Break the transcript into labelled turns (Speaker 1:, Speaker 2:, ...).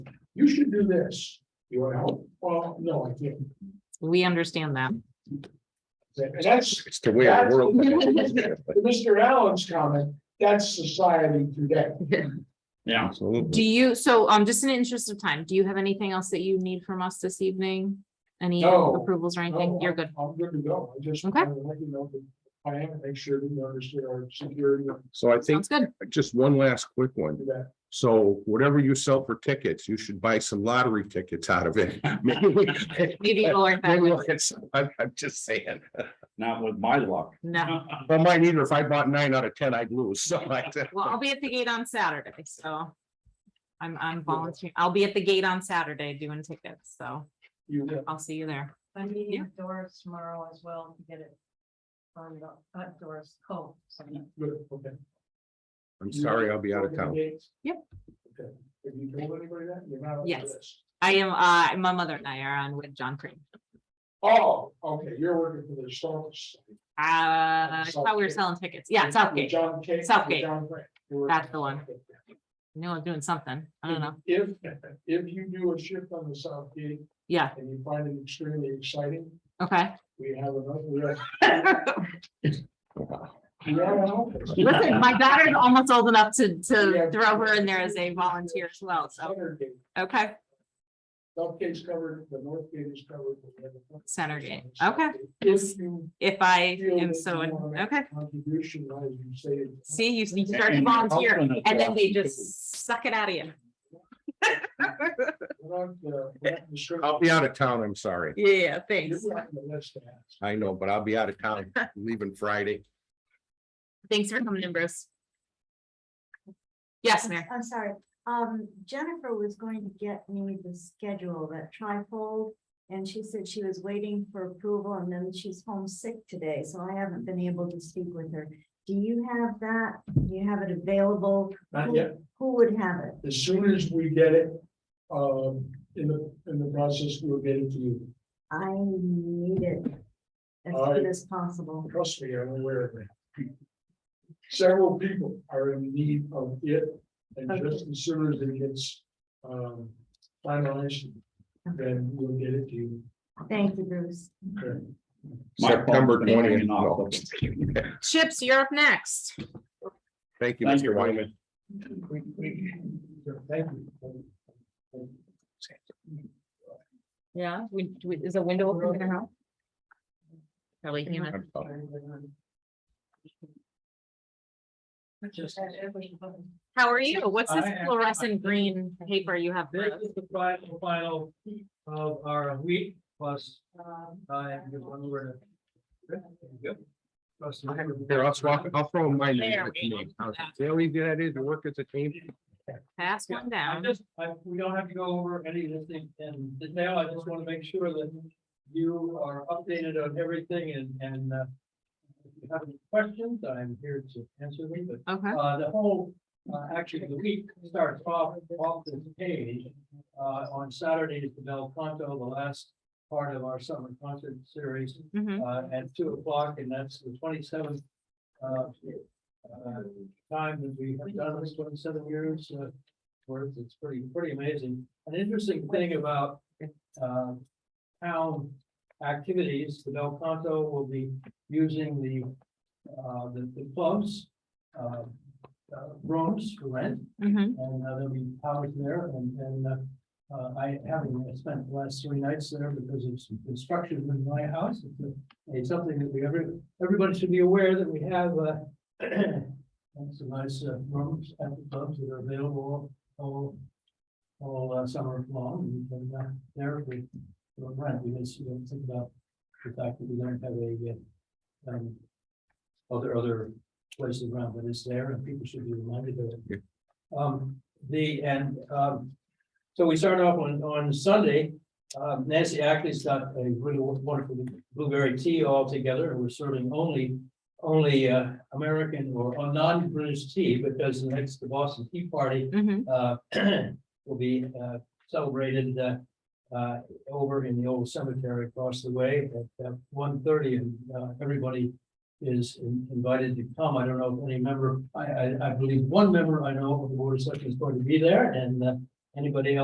Speaker 1: you should do this. You wanna help? Well, no, I can't.
Speaker 2: We understand that.
Speaker 1: That's
Speaker 3: It's the way our world.
Speaker 1: Mr. Allen's comment, that's society today.
Speaker 4: Yeah.
Speaker 2: Do
Speaker 3: Absolutely.
Speaker 2: you, so um, just in the interest of time, do you have anything else that you need from us this evening? Any
Speaker 1: No.
Speaker 2: approvals or anything? You're good.
Speaker 1: I'm good to go. I just.
Speaker 2: Okay.
Speaker 1: wanted to let you know that I am, make sure that you understand our security and
Speaker 3: So I think
Speaker 2: Sounds good.
Speaker 3: just one last quick one.
Speaker 1: that.
Speaker 3: So whatever you sell for tickets, you should buy some lottery tickets out of it. Maybe we-
Speaker 2: Maybe we'll work that
Speaker 3: maybe we'll
Speaker 2: way.
Speaker 3: get some. I'm, I'm just saying.
Speaker 4: Not with my luck.
Speaker 2: No,
Speaker 3: Well, mine either. If I bought nine out of ten, I'd lose. So I.
Speaker 2: well, I'll be at the gate on Saturday, so. I'm, I'm volunteering. I'll be at the gate on Saturday doing tickets, so
Speaker 1: You did.
Speaker 2: I'll see you there.
Speaker 5: I'm
Speaker 2: Yeah.
Speaker 5: meeting with Doris tomorrow as well to get it. firmed up. not Doris Cole. sorry.
Speaker 1: Good, okay.
Speaker 3: I'm sorry, I'll be out of town.
Speaker 2: Yep.
Speaker 1: Okay. Have you told anybody that? You're not. up for
Speaker 2: Yes.
Speaker 1: this.
Speaker 2: I am, uh, my mother and I are on with John Crane.
Speaker 1: Oh, okay, you're working for the Starks.
Speaker 2: Uh, I thought we were selling tickets. Yeah, Southgate.
Speaker 1: John K.
Speaker 2: Southgate.
Speaker 1: John Gray. You're working
Speaker 2: That's the
Speaker 1: for
Speaker 2: one.
Speaker 1: Southgate.
Speaker 2: No, I'm doing something. I don't know.
Speaker 1: If, if you do a shift on the South Gate
Speaker 2: Yeah,
Speaker 1: and you find it extremely exciting,
Speaker 2: okay.
Speaker 1: we have another, we have.
Speaker 3: Wow.
Speaker 1: we have an office.
Speaker 2: Listen, my daughter's almost old enough to,
Speaker 1: Yeah.
Speaker 2: to throw her in there as a volunteer as well, so,
Speaker 1: Center gate,
Speaker 2: okay,
Speaker 1: South gate's covered, the north gate is covered. we have a-
Speaker 2: Center gate, okay.
Speaker 1: If you.
Speaker 2: if I
Speaker 1: feel
Speaker 2: am
Speaker 1: that
Speaker 2: so,
Speaker 1: you wanna make
Speaker 2: okay.
Speaker 1: a Contribution, as you say.
Speaker 2: See, you you start to
Speaker 4: And- and
Speaker 2: volunteer,
Speaker 4: alternate
Speaker 2: and then they
Speaker 4: option
Speaker 2: just suck it out of you.
Speaker 3: I'll be out of town. I'm sorry.
Speaker 2: Yeah, yeah,
Speaker 1: You're
Speaker 2: thanks.
Speaker 1: on the list to ask.
Speaker 3: I know, but I'll be out of town, leaving Friday.
Speaker 2: Thanks for coming in, Bruce. Yes, Mayor.
Speaker 5: I'm sorry, um, Jennifer was going to get me the schedule, that trifold. And she said she was waiting for approval and then she's homesick today, so I haven't been able to speak with her. Do you have that? Do you have it available?
Speaker 1: Not
Speaker 5: Who-
Speaker 1: yet.
Speaker 5: Who would have it?
Speaker 1: As soon as we get it, um, in the, in the process, we'll get it to you.
Speaker 5: I need it as
Speaker 1: All right.
Speaker 5: soon as possible.
Speaker 1: Trust me, I'm aware of that. Several people are in need of it, and just as soon as it gets, um, finalized, then we'll get it to you.
Speaker 5: Thank you, Bruce.
Speaker 1: Okay.
Speaker 4: My phone's
Speaker 3: September
Speaker 4: been ringing
Speaker 3: twentieth.
Speaker 4: off.
Speaker 2: Chips, you're up next.
Speaker 3: Thank you,
Speaker 4: Thank you,
Speaker 3: Mr. Wyman.
Speaker 4: Raymond.
Speaker 1: We- we- Thank you.
Speaker 2: Yeah, is a window
Speaker 1: open
Speaker 2: open now? Probably human.
Speaker 3: I'm sorry.
Speaker 2: How are you? What's this
Speaker 6: I am-
Speaker 2: fluorescent green paper you have? for
Speaker 6: This
Speaker 2: us?
Speaker 6: is the final, final of our week plus, uh, you want to. Plus,
Speaker 3: I have- Here, I'll swap, I'll throw mine in
Speaker 2: There
Speaker 3: with
Speaker 2: we
Speaker 3: me.
Speaker 2: go.
Speaker 3: See how easy that is to work as a team?
Speaker 2: Pass one
Speaker 6: I
Speaker 2: down.
Speaker 6: just, I, we don't have to go over any of this thing, and now I just want to make sure that you are updated on everything and, and, uh. If you have any questions, I'm here to answer them, but
Speaker 2: Okay,
Speaker 6: Uh, the whole, uh, actually, the week starts off, off this page. Uh, on Saturday is the Bel Canto, the last part of our summer concert series,
Speaker 2: mhm.
Speaker 6: uh, at two o'clock, and that's the twenty-seventh. Uh, uh, time that we have done this twenty-seven years, uh, worth, it's pretty, pretty amazing. An interesting thing about, um, town activities, the Bel Canto will be using the, uh, the, the clubs, uh, uh, rooms for rent,
Speaker 2: Mhm.
Speaker 6: and uh, there'll be powers there, and, and, uh, uh, I haven't spent the last three nights there because of some construction in my house. It's a- It's something that we, every, everybody should be aware that we have, uh, and some nice uh, rooms at the clubs that are available all, all uh, summer long, and uh, there we, we rent, we just, we don't think about the fact that we don't have a, uh, um, other, other places around, but it's there, and people should be reminded of it. Um, the, and, um, so we started off on, on Sunday. Um, Nancy Ackley's got a really wonderful blueberry tea all together, and we're serving only, only, uh, American or or non-British tea, because the next, the Boston Tea Party
Speaker 2: Mhm.
Speaker 6: uh, will be uh, celebrated uh, uh, over in the old cemetery across the way at one thirty, and uh, everybody is in- invited to come. I don't know if any member, I, I, I believe one member I know of the Board of Selectmen is going to be there, and uh, anybody else.